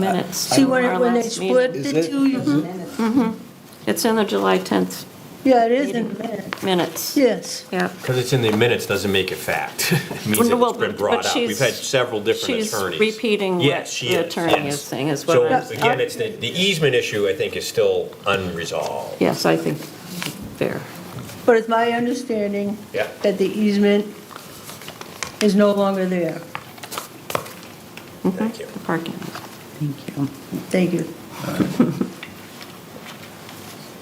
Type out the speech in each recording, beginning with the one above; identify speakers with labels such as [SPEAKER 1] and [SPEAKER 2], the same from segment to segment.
[SPEAKER 1] minutes.
[SPEAKER 2] See
[SPEAKER 1] from
[SPEAKER 2] when,
[SPEAKER 1] our
[SPEAKER 2] when they
[SPEAKER 1] last meeting.
[SPEAKER 2] split
[SPEAKER 3] Is
[SPEAKER 2] the
[SPEAKER 3] it-
[SPEAKER 2] two, you-
[SPEAKER 1] It's in the July 10th
[SPEAKER 2] yeah, it is in minutes,
[SPEAKER 1] minutes.
[SPEAKER 2] yes.
[SPEAKER 1] Yeah.
[SPEAKER 4] Because it's in the minutes doesn't make it fact. It means
[SPEAKER 1] Well,
[SPEAKER 4] it's been brought
[SPEAKER 1] but
[SPEAKER 4] up. We've
[SPEAKER 1] she's-
[SPEAKER 4] had several different
[SPEAKER 1] She's
[SPEAKER 4] attorneys.
[SPEAKER 1] repeating what
[SPEAKER 4] Yes, she
[SPEAKER 1] the
[SPEAKER 4] is,
[SPEAKER 1] attorney
[SPEAKER 4] yes.
[SPEAKER 1] is saying is
[SPEAKER 4] So
[SPEAKER 1] what I'm
[SPEAKER 4] again, it's the, the easement issue, I think, is still unresolved.
[SPEAKER 1] Yes, I think fair.
[SPEAKER 2] But it's my understanding
[SPEAKER 4] Yeah.
[SPEAKER 2] that the easement is no longer there.
[SPEAKER 1] Mm-hmm.
[SPEAKER 4] Thank you.
[SPEAKER 1] The parking.
[SPEAKER 5] Thank you.
[SPEAKER 2] Thank you.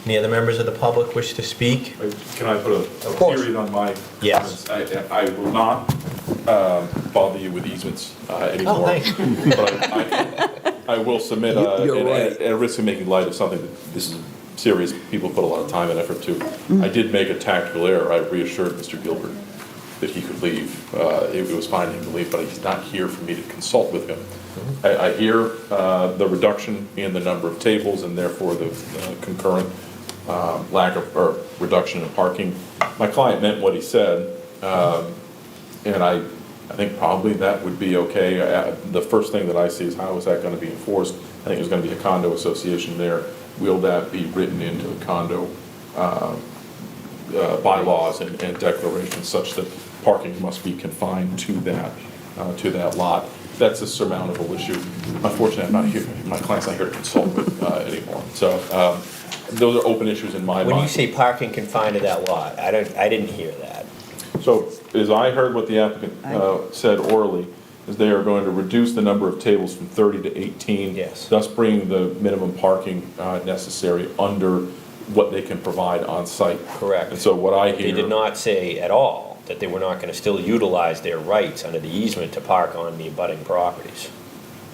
[SPEAKER 4] Any other members of the public wish to speak?
[SPEAKER 6] Uh, Can I put a- a
[SPEAKER 4] course.
[SPEAKER 6] period on my?
[SPEAKER 4] Yes.
[SPEAKER 6] comments? I I will not um, bother you with easements uh, anymore.
[SPEAKER 4] Oh, thank
[SPEAKER 6] But I- I I will submit uh,
[SPEAKER 3] You- you're
[SPEAKER 6] an-
[SPEAKER 3] right.
[SPEAKER 6] at risk of making light of something that this is serious, people put a lot of time and effort to.
[SPEAKER 3] Mm-hmm.
[SPEAKER 6] I did make a tactical error. I reassured Mr. Gilbert that he could leave. Uh, It was fine, he could leave, but he's not here for me to consult with him.
[SPEAKER 3] Mm-hmm.
[SPEAKER 6] I, I hear uh, the reduction in the number of tables and therefore the uh, concurrent um, lack of, or reduction in parking. My client meant what he said. And I, I think probably that would be okay. Uh, The first thing that I see is how is that going to be enforced? I think there's going to be a condo association there. Will that be written into the condo uh, uh, bylaws and and declarations such that parking must be confined to that, uh, to that lot? That's a surmountable issue. Unfortunately, I'm not here, my client's not here to consult with uh, anymore. So um, those are open issues in my mind.
[SPEAKER 4] When you say parking confined to that lot, I don't, I didn't hear that.
[SPEAKER 6] So as I heard what the applicant uh, said orally, is they are going to reduce the number of tables from 30 to 18.
[SPEAKER 4] Yes.
[SPEAKER 6] Thus bringing the minimum parking uh, necessary under what they can provide on site.
[SPEAKER 4] Correct.
[SPEAKER 6] And so what I hear.
[SPEAKER 4] They did not say at all that they were not going to still utilize their rights under the easement to park on the abutting properties,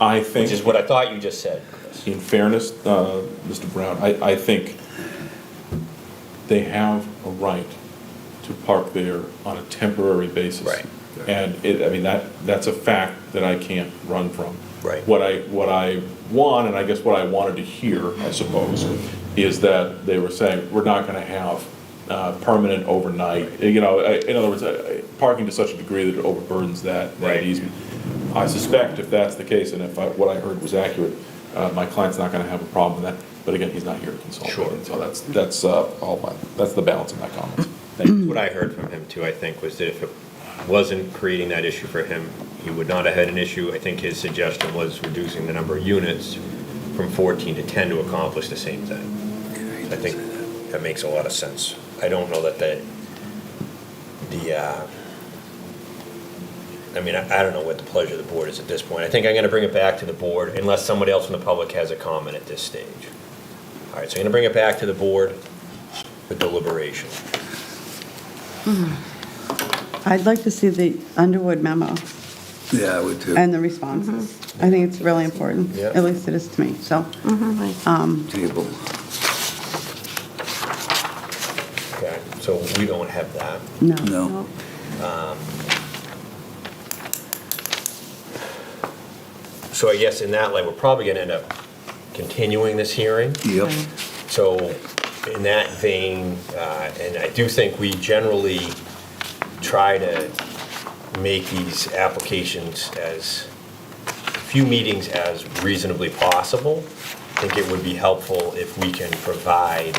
[SPEAKER 6] I think.
[SPEAKER 4] which is what I thought you just said, Chris.
[SPEAKER 6] in fairness, uh, Mr. Brown, I, I think they have a right to park there on a temporary basis.
[SPEAKER 4] Right.
[SPEAKER 6] And it, I mean, that, that's a fact that I can't run from.
[SPEAKER 4] Right.
[SPEAKER 6] What I, what I want, and I guess what I wanted to hear, I suppose, is that they were saying, we're not gonna have uh, permanent overnight, you know, I- in other words, I- I- parking to such a degree that it overburdens that, that
[SPEAKER 4] Right.
[SPEAKER 6] easement. I suspect if that's the case, and if I- what I heard was accurate, uh, my client's not going to have a problem with that, but again, he's not here to consult. with
[SPEAKER 4] Sure.
[SPEAKER 6] me, So that's, that's uh, all my, that's the balance of my comments.
[SPEAKER 4] What I heard from him too, I think, was that if it wasn't creating that issue for him, he would not have had an issue. I think his suggestion was reducing the number of units from 14 to 10 to accomplish the same thing. I think that makes a lot of sense. I don't know that that, the, uh, I mean, I I don't know what the pleasure of the board is at this point. I think I'm going to bring it back to the board unless somebody else in the public has a comment at this stage. All right, so I'm going to bring it back to the board for deliberation.
[SPEAKER 5] I'd like to see the Underwood memo
[SPEAKER 3] Yeah, I would too.
[SPEAKER 5] and the responses. I think it's really important,
[SPEAKER 4] Yeah.
[SPEAKER 5] at least it is to me, so.
[SPEAKER 1] Oh,
[SPEAKER 3] Table.
[SPEAKER 4] Okay, so we don't have that.
[SPEAKER 5] No.
[SPEAKER 3] No.
[SPEAKER 4] So I guess in that light, we're probably going to end up continuing this hearing.
[SPEAKER 3] Yep.
[SPEAKER 4] So in that vein, uh, and I do think we generally try to make these applications as, few meetings as reasonably possible. I think it would be helpful if we can provide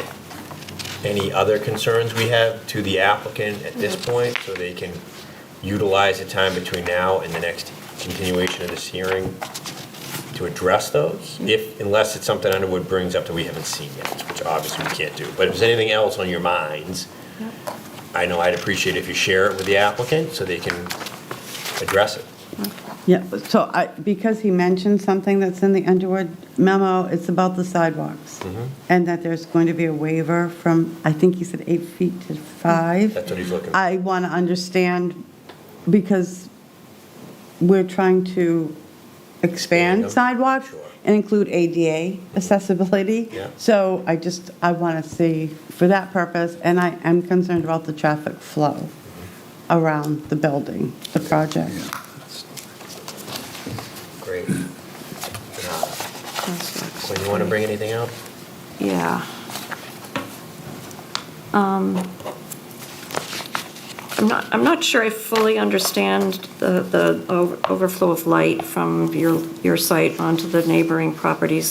[SPEAKER 4] any other concerns we have to the applicant at this point, so they can utilize the time between now and the next continuation of this hearing to address those, if, unless it's something Underwood brings up that we haven't seen yet, which obviously we can't do. But if there's anything else on your minds, I know I'd appreciate if you share it with the applicant so they can address it.
[SPEAKER 5] Yeah, so I, because he mentioned something that's in the Underwood memo, it's about the sidewalks.
[SPEAKER 4] Mm-hmm.
[SPEAKER 5] And that there's going to be a waiver from, I think he said eight feet to five.
[SPEAKER 4] That's what he's looking for.
[SPEAKER 5] I want to understand, because we're trying to
[SPEAKER 4] Yeah.
[SPEAKER 5] expand sidewalks
[SPEAKER 4] Sure.
[SPEAKER 5] and include ADA accessibility.
[SPEAKER 4] Yeah.
[SPEAKER 5] So I just, I want to see for that purpose, and I am concerned about the traffic flow
[SPEAKER 4] Mm-hmm.
[SPEAKER 5] around the building, the project.
[SPEAKER 4] Great. Uh, Quinn, you want to bring anything up?
[SPEAKER 1] Yeah. Um, I'm not, I'm not sure I fully understand the, the over- overflow of light from your, your site onto the neighboring properties